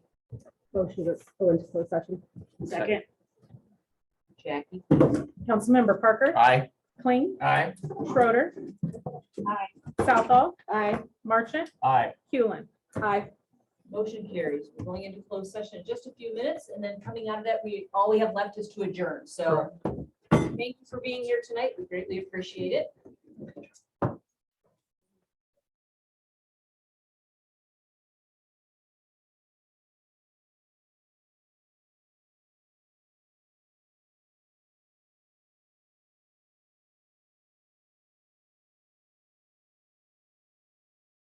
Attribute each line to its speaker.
Speaker 1: Motion to go into closed session.
Speaker 2: Second.
Speaker 3: Jackie.
Speaker 1: Councilmember Parker,
Speaker 2: Aye.
Speaker 1: Kling,
Speaker 2: Aye.
Speaker 1: Schroeder. Aye. Southall,
Speaker 3: Aye.
Speaker 1: Marchant,
Speaker 2: Aye.
Speaker 1: Hewlin. Aye.
Speaker 3: Motion carries. We're going into closed session in just a few minutes, and then coming out of that, we, all we have left is to adjourn. So thank you for being here tonight. We greatly appreciate it.